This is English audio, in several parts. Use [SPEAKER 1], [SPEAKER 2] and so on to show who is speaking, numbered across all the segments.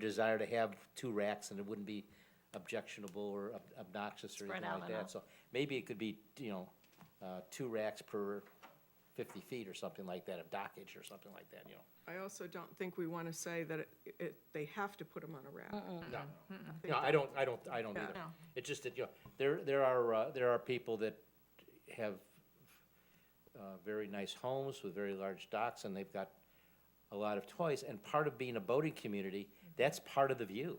[SPEAKER 1] desire to have two racks, and it wouldn't be objectionable or ob- obnoxious or
[SPEAKER 2] Spread
[SPEAKER 1] anything
[SPEAKER 2] out
[SPEAKER 1] like that.
[SPEAKER 2] enough.
[SPEAKER 1] So maybe it could be, you know, uh, two racks per fifty feet or something like that, of dockage or something like that, you know.
[SPEAKER 3] I also don't think we want to say that it- it, they have to put them on a rack.
[SPEAKER 1] No, no, I don't, I don't, I don't
[SPEAKER 3] Yeah.
[SPEAKER 1] either.
[SPEAKER 2] No.
[SPEAKER 1] It's just that, you know, there, there are, uh, there are people that have uh, very nice homes with very large docks, and they've got a lot of toys, and part of being a boating community, that's part of the view,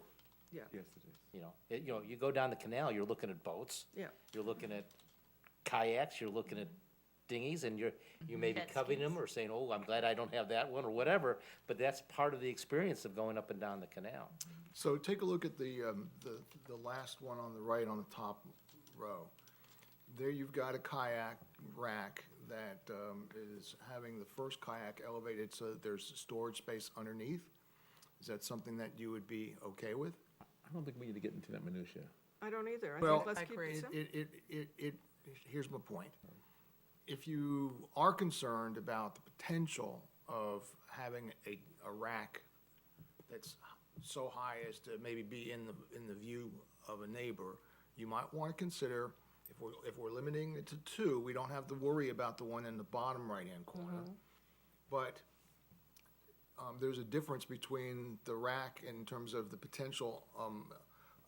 [SPEAKER 3] Yeah,
[SPEAKER 4] Yes, it is.
[SPEAKER 1] you know? It- You know, you go down the canal, you're looking at boats.
[SPEAKER 3] yeah,
[SPEAKER 1] You're looking at kayaks, you're looking at dinghies, and you're, you may be
[SPEAKER 2] Jet
[SPEAKER 1] covering
[SPEAKER 2] skis.
[SPEAKER 1] them or saying, oh, I'm glad I don't have that one, or whatever, but that's part of the experience of going up and down the canal.
[SPEAKER 5] So take a look at the, um, the, the last one on the right on the top row. There you've got a kayak rack that, um, is having the first kayak elevated so that there's storage space underneath. Is that something that you would be okay with?
[SPEAKER 4] I don't think we need to get into that minutia.
[SPEAKER 3] I don't either. I
[SPEAKER 5] Well,
[SPEAKER 3] think let's keep it
[SPEAKER 5] It,
[SPEAKER 3] simple.
[SPEAKER 5] it, it, it, it, here's my point. If you are concerned about the potential of having a, a rack that's so high as to maybe be in the, in the view of a neighbor, you might want to consider, if we're, if we're limiting it to two, we don't have to worry about the one in the bottom right-hand corner. But um, there's a difference between the rack in terms of the potential um,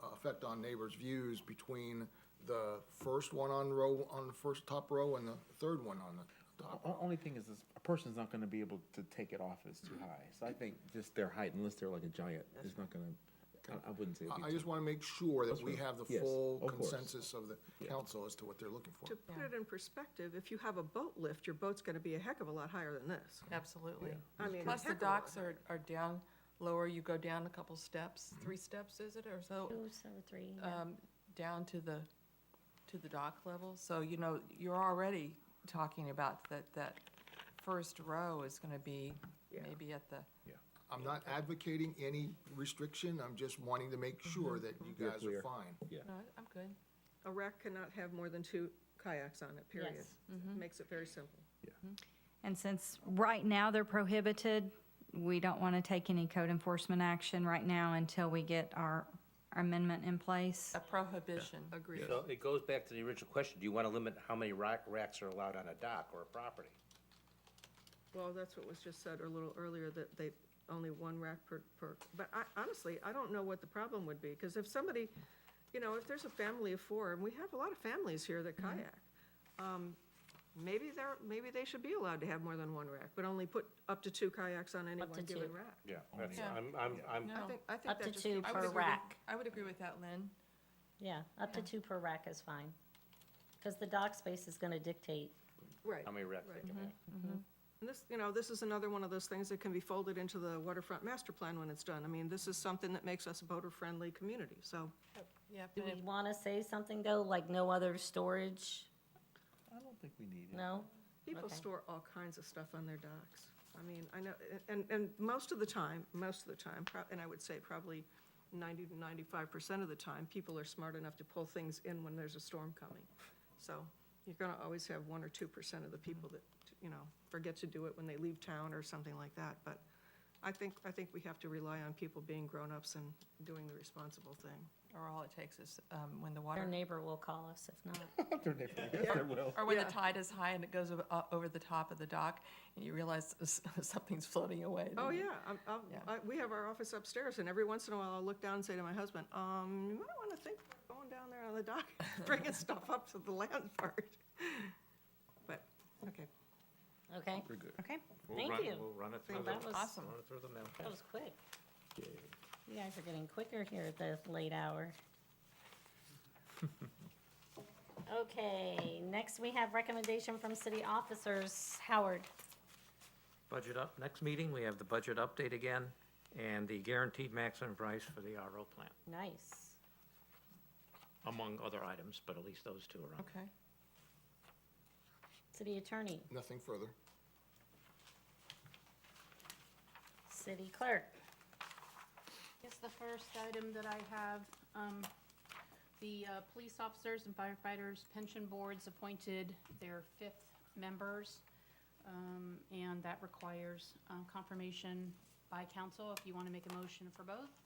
[SPEAKER 5] uh, effect on neighbors' views between the first one on row, on the first top row and the third one on the top.
[SPEAKER 4] O- Only thing is, is a person's not gonna be able to take it off if it's too high. So I think just their height, unless they're like a giant, it's not gonna, I, I wouldn't say it'd be
[SPEAKER 5] I- I
[SPEAKER 4] too-
[SPEAKER 5] just want to make sure that we have the
[SPEAKER 4] Yes,
[SPEAKER 5] full
[SPEAKER 4] of course.
[SPEAKER 5] consensus of the council as to what they're looking for.
[SPEAKER 3] To put it in perspective, if you have a boat lift, your boat's going to be a heck of a lot higher than this.
[SPEAKER 6] Absolutely.
[SPEAKER 3] I mean,
[SPEAKER 6] Plus, the
[SPEAKER 3] heck of a lot
[SPEAKER 6] docks are, are down lower, you go down a couple steps, three
[SPEAKER 3] Mm-hmm.
[SPEAKER 6] steps, is it, or so?
[SPEAKER 2] Two, so three, yeah.
[SPEAKER 6] um, down to the, to the dock level. So, you know, you're already talking about that, that first row is gonna be
[SPEAKER 3] Yeah.
[SPEAKER 6] maybe at the,
[SPEAKER 4] Yeah.
[SPEAKER 5] I'm not advocating any restriction, I'm just wanting to make sure that you
[SPEAKER 4] Mm-hmm. You're
[SPEAKER 5] guys are
[SPEAKER 4] clear.
[SPEAKER 5] fine.
[SPEAKER 6] no, I'm good.
[SPEAKER 3] A rack cannot have more than two kayaks on it, period.
[SPEAKER 2] Yes.
[SPEAKER 3] Makes it very simple.
[SPEAKER 7] And since right now they're prohibited, we don't want to take any code enforcement action right now until we get our our amendment in place.
[SPEAKER 6] A prohibition.
[SPEAKER 3] Agreed.
[SPEAKER 1] So it goes back to the original question, do you want to limit how many rack, racks are allowed on a dock or a property?
[SPEAKER 3] Well, that's what was just said a little earlier, that they, only one rack per, per, but I, honestly, I don't know what the problem would be, because if somebody, you know, if there's a family of four, and we have a lot of families here that
[SPEAKER 2] Mm-hmm.
[SPEAKER 3] kayak, um, maybe they're, maybe they should be allowed to have more than one rack, but only put up to two kayaks on any
[SPEAKER 2] Up to
[SPEAKER 3] one given
[SPEAKER 2] two.
[SPEAKER 3] rack.
[SPEAKER 1] Yeah, that's,
[SPEAKER 6] Yeah.
[SPEAKER 1] I'm, I'm, I'm,
[SPEAKER 6] No.
[SPEAKER 3] I think, I think
[SPEAKER 2] Up
[SPEAKER 3] that
[SPEAKER 2] to
[SPEAKER 3] just
[SPEAKER 2] two
[SPEAKER 3] needs-
[SPEAKER 6] I would
[SPEAKER 2] per
[SPEAKER 6] agree with-
[SPEAKER 2] rack.
[SPEAKER 6] I would agree with that, Lynn.
[SPEAKER 2] Yeah, up to two per rack is fine. Because the dock space is gonna dictate.
[SPEAKER 3] Right.
[SPEAKER 1] how many racks they
[SPEAKER 3] Right. Mm-hmm.
[SPEAKER 1] can have.
[SPEAKER 3] And this, you know, this is another one of those things that can be folded into the waterfront master plan when it's done. I mean, this is something that makes us a boater-friendly community, so.
[SPEAKER 6] Yeah,
[SPEAKER 2] Do
[SPEAKER 6] but
[SPEAKER 2] we wanna say something though, like no other storage?
[SPEAKER 4] I don't think we need it.
[SPEAKER 2] No?
[SPEAKER 3] People
[SPEAKER 2] Okay.
[SPEAKER 3] store all kinds of stuff on their docks. I mean, I know, and, and most of the time, most of the time, prob- and I would say probably ninety to ninety-five percent of the time, people are smart enough to pull things in when there's a storm coming. So you're gonna always have one or two percent of the people that, you know, forget to do it when they leave town or something like that. But I think, I think we have to rely on people being grown-ups and doing the responsible thing.
[SPEAKER 6] Or all it takes is, um, when the
[SPEAKER 2] Our
[SPEAKER 6] water,
[SPEAKER 2] neighbor will call us if not.
[SPEAKER 4] They're different. Yes, they will.
[SPEAKER 6] or when the tide is high and it goes o- o- over the top of the dock and you realize s- something's floating away. then
[SPEAKER 3] Oh,
[SPEAKER 6] you-
[SPEAKER 3] yeah, I'm, I'm,
[SPEAKER 6] Mm-hmm. Yeah.
[SPEAKER 3] I, we have our office upstairs, and every once in a while, I'll look down and say to my husband, um, you might wanna think about going down there on the dock, bringing stuff up to the land part. But, okay,
[SPEAKER 2] Okay?
[SPEAKER 4] We're good.
[SPEAKER 7] Okay.
[SPEAKER 8] We'll
[SPEAKER 2] Thank
[SPEAKER 8] run-
[SPEAKER 2] you.
[SPEAKER 8] We'll run it
[SPEAKER 2] Well,
[SPEAKER 8] through the,
[SPEAKER 2] that was-
[SPEAKER 6] Awesome.
[SPEAKER 8] run it through the mill.
[SPEAKER 2] That was quick. You guys are getting quicker here at this late hour. Okay, next we have recommendation from city officers. Howard,
[SPEAKER 8] Budget up, next meeting, we have the budget update again, and the guaranteed maximum price for the RO plant,
[SPEAKER 2] nice.
[SPEAKER 8] among other items, but at least those two are on.
[SPEAKER 6] Okay.
[SPEAKER 2] City attorney,
[SPEAKER 5] Nothing further.
[SPEAKER 2] city clerk.
[SPEAKER 9] Yes, the first item that I have, um, the uh, police officers and firefighters pension boards appointed their fifth members. uh, um, And that requires um, confirmation by council if you want to make a motion for both.